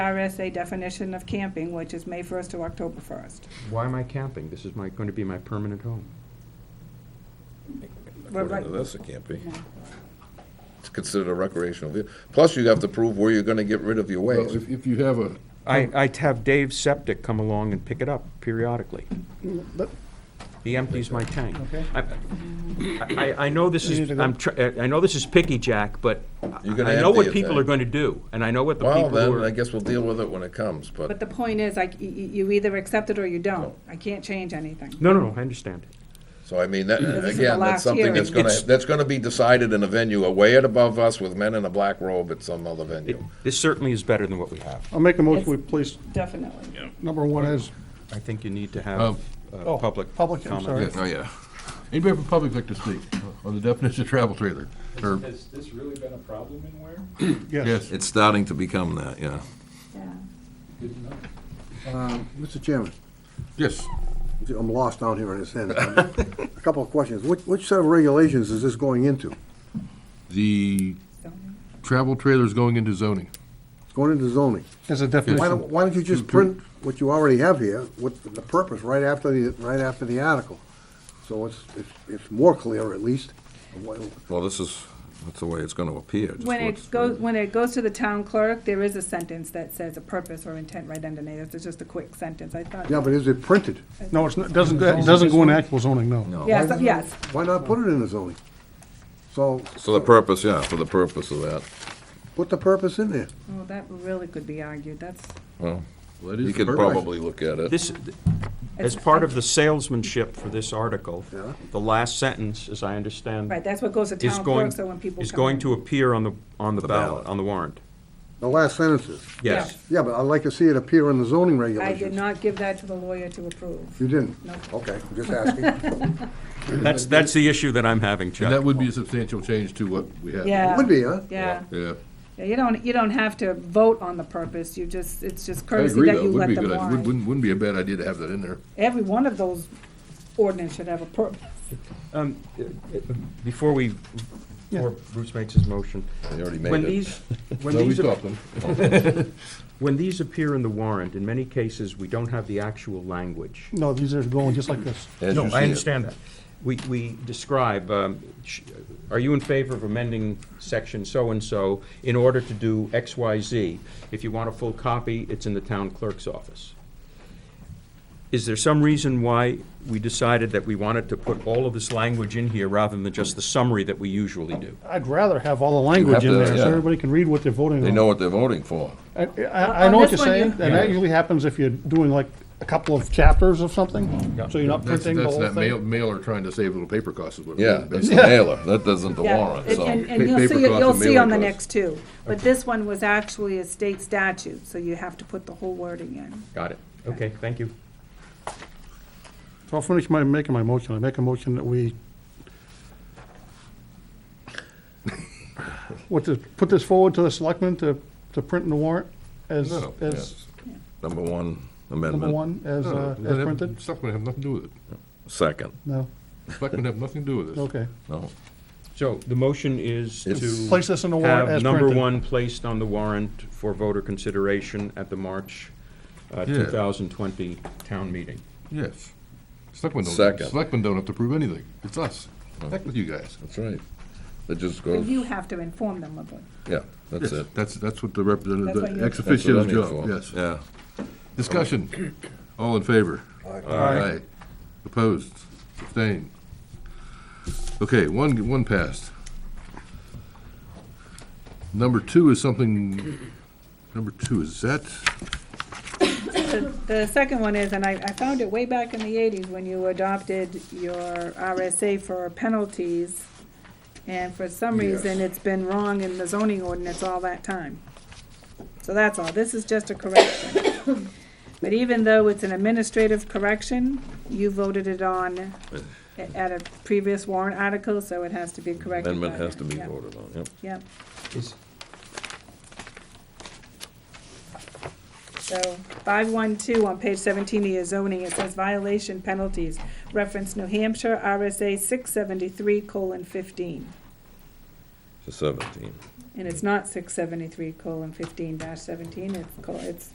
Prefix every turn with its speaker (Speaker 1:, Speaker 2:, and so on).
Speaker 1: RSA definition of camping, which is May 1st to October 1st.
Speaker 2: Why am I camping? This is my, going to be my permanent home.
Speaker 1: right-
Speaker 3: According to this, it can't be. It's considered a recreational vehicle. Plus, you have to prove where you're gonna get rid of your
Speaker 4: Well,
Speaker 3: waste.
Speaker 4: if, if you have a,
Speaker 2: I, I'd have Dave Septic come along and pick it up periodically.
Speaker 4: but,
Speaker 2: He empties my tank.
Speaker 4: Okay.
Speaker 2: I, I, I know this
Speaker 4: You need
Speaker 2: is,
Speaker 4: to go.
Speaker 2: I'm, tr- uh, I know this is picky, Jack, but
Speaker 3: You're gonna
Speaker 2: I know
Speaker 3: empty
Speaker 2: what
Speaker 3: it
Speaker 2: people
Speaker 3: then.
Speaker 2: are gonna do, and I know what the
Speaker 3: Well,
Speaker 2: people who
Speaker 3: then, I
Speaker 2: are.
Speaker 3: guess we'll deal with it when it comes,
Speaker 1: But
Speaker 3: but
Speaker 1: the point is, like, y- y- you either accept it or you don't. I can't change anything.
Speaker 2: No, no, no, I understand.
Speaker 3: So I mean, that,
Speaker 1: this is the
Speaker 3: again,
Speaker 1: last
Speaker 3: that's something
Speaker 1: hearing.
Speaker 3: that's gonna,
Speaker 2: It's-
Speaker 3: that's gonna be decided in a venue away at above us with men in a black robe at some other
Speaker 2: It-
Speaker 3: venue.
Speaker 2: This certainly is better than what we have.
Speaker 4: I'll make a motion, we place
Speaker 1: Definitely.
Speaker 4: number one as.
Speaker 2: I think you need to
Speaker 4: Um,
Speaker 2: have uh,
Speaker 4: oh,
Speaker 2: public
Speaker 4: public,
Speaker 2: comment.
Speaker 4: I'm sorry. Yeah, oh,
Speaker 5: yeah.
Speaker 4: Anybody from public like to speak on the definition of travel trailer? Or,
Speaker 6: Has this really been a problem in Ware?
Speaker 4: yes,
Speaker 5: It's starting to become that, yeah.
Speaker 6: Didn't know.
Speaker 7: Mr. Chairman,
Speaker 4: yes.
Speaker 7: I'm lost down here in this end. A couple of questions. Which, which set of regulations is this going into?
Speaker 4: The travel trailer is going into zoning.
Speaker 7: It's going into zoning.
Speaker 8: There's a
Speaker 7: Why don't,
Speaker 8: definition.
Speaker 7: why don't you just print what you already have here with the purpose right after the, right after the article? So it's, it's, it's more clear at least. of what-
Speaker 5: Well, this is, that's the way it's gonna appear. just
Speaker 1: When
Speaker 5: what's-
Speaker 1: it goes, when it goes to the town clerk, there is a sentence that says a purpose or intent right underneath. It's just a quick sentence. I thought.
Speaker 7: Yeah, but is it printed?
Speaker 8: No, it's not, doesn't, it doesn't go in actual zoning, no.
Speaker 5: No.
Speaker 1: Yes, yes.
Speaker 7: Why not put it in the zoning? So
Speaker 5: So the purpose, yeah, for the purpose of that,
Speaker 7: put the purpose in there.
Speaker 1: Well, that really could be argued. That's,
Speaker 5: well,
Speaker 4: Well, that is
Speaker 5: you
Speaker 4: the
Speaker 5: could
Speaker 4: purpose.
Speaker 5: probably look at it.
Speaker 2: This, as part of the salesmanship for this article,
Speaker 7: Yeah.
Speaker 2: the last sentence, as I understand,
Speaker 1: right, that's what goes to
Speaker 2: is
Speaker 1: town
Speaker 2: going,
Speaker 1: clerk, so when people.
Speaker 2: is
Speaker 1: come
Speaker 2: going
Speaker 1: in-
Speaker 2: to appear on the, on the ballot,
Speaker 5: ballot.
Speaker 2: on the warrant.
Speaker 7: The last sentences.
Speaker 2: Yes.
Speaker 7: Yeah, but I'd like to see it appear in the zoning
Speaker 1: I
Speaker 7: regulations.
Speaker 1: did not give that to the lawyer to approve.
Speaker 7: You didn't?
Speaker 1: No.
Speaker 7: Okay, I'm just asking.
Speaker 2: That's, that's the issue that I'm having,
Speaker 4: And that
Speaker 2: Chuck.
Speaker 4: would be a substantial change to what we have.
Speaker 1: Yeah.
Speaker 7: Would be, huh?
Speaker 1: Yeah.
Speaker 4: Yeah.
Speaker 1: Yeah, you don't, you don't have to vote on the purpose. You just, it's just
Speaker 4: I
Speaker 1: courtesy
Speaker 4: agree,
Speaker 1: that
Speaker 4: though.
Speaker 1: you
Speaker 4: Would
Speaker 1: let
Speaker 4: be a
Speaker 1: them
Speaker 4: good, idea. Wouldn't-
Speaker 1: on.
Speaker 4: wouldn't, wouldn't be a bad idea to have that in there.
Speaker 1: Every one of those ordinance should have a purpose.
Speaker 2: Um, Before we, before Bruce makes his motion.
Speaker 3: They already made
Speaker 2: When
Speaker 3: it.
Speaker 2: these, when
Speaker 4: No, we
Speaker 2: these,
Speaker 4: stopped them.
Speaker 2: when these appear in the warrant, in many cases, we don't have the actual language.
Speaker 8: No, these are going just like this.
Speaker 3: as
Speaker 2: No,
Speaker 3: you see
Speaker 2: I
Speaker 3: it.
Speaker 2: understand that. We, we describe, um, sh- are you in favor of amending section so-and-so in order to do X, Y, Z? If you want a full copy, it's in the town clerk's office. Is there some reason why we decided that we wanted to put all of this language in here rather than just the summary that we usually do?
Speaker 8: I'd rather have all the language in
Speaker 5: to,
Speaker 8: there so
Speaker 5: yeah.
Speaker 8: everybody can read what they're voting
Speaker 5: They know
Speaker 8: on.
Speaker 5: what they're voting for.
Speaker 8: I, I I
Speaker 1: On
Speaker 8: know what
Speaker 1: this
Speaker 8: you're
Speaker 1: one, you-
Speaker 8: saying, and that usually happens if you're doing like a couple of chapters of something, so you're not
Speaker 4: That's,
Speaker 8: printing the
Speaker 4: that's
Speaker 8: whole
Speaker 4: that mail,
Speaker 8: thing.
Speaker 4: mailer trying to save little paper costs is what it
Speaker 5: Yeah,
Speaker 4: is,
Speaker 5: that's the
Speaker 4: basically.
Speaker 5: mailer, that doesn't the
Speaker 1: Yeah,
Speaker 5: warrant,
Speaker 1: and-
Speaker 5: so.
Speaker 1: And,
Speaker 4: pa-
Speaker 1: and you'll
Speaker 4: paper
Speaker 1: see, it-
Speaker 4: costs
Speaker 1: you'll
Speaker 4: and
Speaker 1: see
Speaker 4: mailing
Speaker 1: on the
Speaker 4: costs.
Speaker 1: next two, but this one was actually a state statute, so you have to put the whole wording in.
Speaker 2: Got it. Okay, thank you.
Speaker 8: So I'll finish my, making my motion. I make a motion that we what, to put this forward to the selectmen to, to print in the warrant as,
Speaker 4: No,
Speaker 8: as,
Speaker 5: Number one
Speaker 8: number
Speaker 5: amendment,
Speaker 8: one, as,
Speaker 4: No,
Speaker 8: uh,
Speaker 4: no,
Speaker 8: as
Speaker 4: Oh, that-
Speaker 8: printed?
Speaker 4: Selectmen have nothing to do with it.
Speaker 5: second,
Speaker 8: No,
Speaker 4: Selectmen have nothing to do with this.
Speaker 8: okay.
Speaker 5: no.
Speaker 2: So the motion is
Speaker 5: It's-
Speaker 2: to.
Speaker 8: Place this in the warrant as
Speaker 2: Have number
Speaker 8: printed.
Speaker 2: one placed on the warrant for voter consideration at the March uh,
Speaker 4: Yeah.
Speaker 2: 2020 town meeting.
Speaker 4: Yes. Selectmen don't,
Speaker 5: Second.
Speaker 4: selectmen don't have to prove anything. It's us. Heck with you guys.
Speaker 5: That's right. It just
Speaker 1: But
Speaker 5: goes,
Speaker 1: you have to inform them of it.
Speaker 5: yeah, that's it.
Speaker 4: That's, that's what the
Speaker 1: That's what
Speaker 4: representative,
Speaker 1: you-
Speaker 4: the ex
Speaker 5: That's what I
Speaker 4: officio's
Speaker 5: need
Speaker 4: job,
Speaker 5: for.
Speaker 4: yes.
Speaker 5: Yeah.
Speaker 4: Discussion. All in favor?
Speaker 8: Aye.
Speaker 4: Opposed? Abstained? Okay, one, one passed. Number two is something, number two, is that,
Speaker 1: The- The second one is, and I, I found it way back in the eighties when you adopted your RSA for penalties, and for some
Speaker 4: Yes.
Speaker 1: reason, it's been wrong in the zoning ordinance all that time. So that's all, this is just a correction. But even though it's an administrative correction, you voted it on a- at a previous warrant article, so it has to be corrected.
Speaker 5: Amendment
Speaker 1: by
Speaker 5: has to
Speaker 1: then.
Speaker 5: be
Speaker 1: Yep,
Speaker 5: voted on, yep.
Speaker 1: Yep,
Speaker 2: Is-
Speaker 1: so five one two on page seventeen of your zoning, it says violation penalties, reference New Hampshire RSA six seventy-three colon fifteen.
Speaker 5: to seventeen.
Speaker 1: And it's not six seventy-three colon fifteen dash seventeen, it's, col- it's